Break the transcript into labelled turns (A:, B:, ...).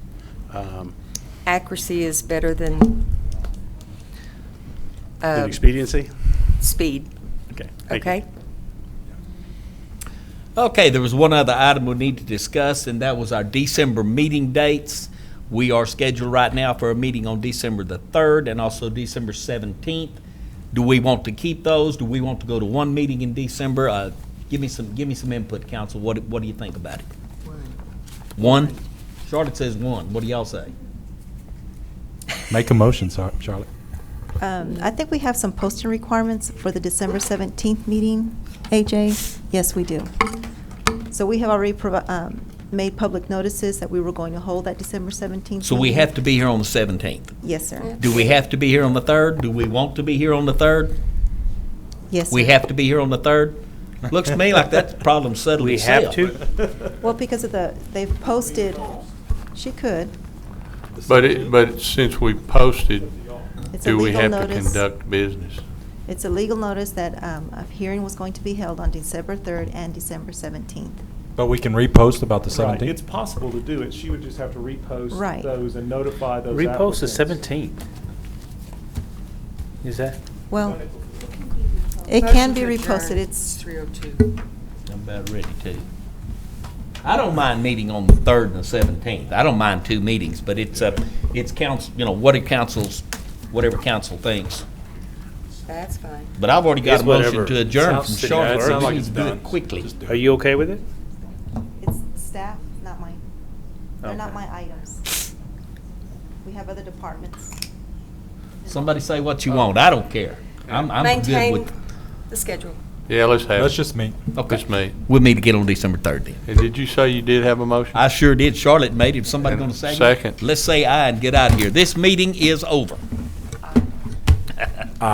A: um,
B: Accuracy is better than
A: than
B: uh,
A: expediency.
B: speed,
A: Okay. thank you.
B: okay?
C: Okay, there was one other item we need to discuss, and that was our December meeting dates. We are scheduled right now for a meeting on December the 3rd and also December 17th. Do we want to keep those? Do we want to go to one meeting in December? Uh, Give me some, give me some input, council. What, do- what do you think about it? One? Charlotte says one. What do y'all say?
D: Make a motion, Sar- Charlotte.
E: Um, I think we have some posting requirements for the December 17th meeting, AJ. Yes, we do. So we have already provi- um, made public notices that we were going to hold that December 17th.
C: So we
E: meeting.
C: have to be here on the 17th.
E: Yes, sir.
C: Do we have to be here on the 3rd? Do we want to be here on the 3rd?
E: Yes, sir.
C: We have to be here on the 3rd? Looks to me like that problem settled
A: We have
C: itself.
A: to,
E: Well, because of the, they've posted, she could.
F: But it, but since we posted,
E: It's a
F: do we
E: legal
F: have to
E: notice.
F: conduct business?
E: It's a legal notice that um, a hearing was going to be held on December 3rd and December 17th.
D: But we can repost about the
G: Right, it's
D: 17th.
G: possible to do it, she would just have to repost
E: Right.
G: those and notify those
A: repost the
G: applicants.
A: seventeenth. Is that?
E: Well, it can be reposted. It's,
B: 302.
C: I'm about ready to. I don't mind meeting on the third and the seventeenth. I don't mind two meetings, but it's, uh, it's council, you know, what do councils, whatever council thinks.
B: That's fine.
C: But I've already got
A: It's
C: a motion
A: whatever.
C: to adjourn from
A: Sounds-
C: Charlotte.
A: yeah, it sounds
C: so
A: like
C: we
A: it's
C: need to do
A: done.
C: it Quickly.
A: Are you okay with it?
E: it's staff, not mine. They're not
A: Okay.
E: my items. We have other departments.
C: Somebody say what you want. I don't care. I'm, I'm good
B: Maintain
C: with,
B: the schedule.
F: Yeah, let's have.
D: That's
F: it.
D: just me.
C: okay.
F: Let's meet.
C: We'll meet again on December third then.
F: And did you say you did have a motion?
C: I sure did. Charlotte made it. Somebody
F: And
C: gonna second? it?
F: second.
C: Let's say aye and get out of here. This meeting is over.